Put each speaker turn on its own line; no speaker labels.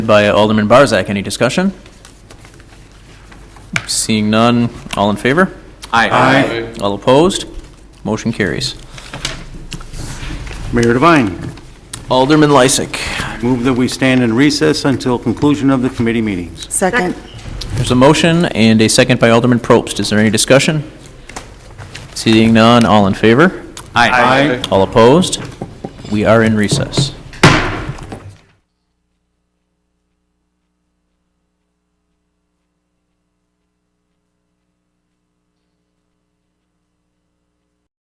by Alderman Barzak. Any discussion? Seeing none, all in favor?
Aye.
All opposed? Motion carries.
Mayor Devine,
Alderman Lysick.
move that we stand in recess until conclusion of the committee meetings.
Second.
There's a motion and a second by Alderman Probst. Is there any discussion? Seeing none, all in favor?
Aye.
All opposed? We are in recess.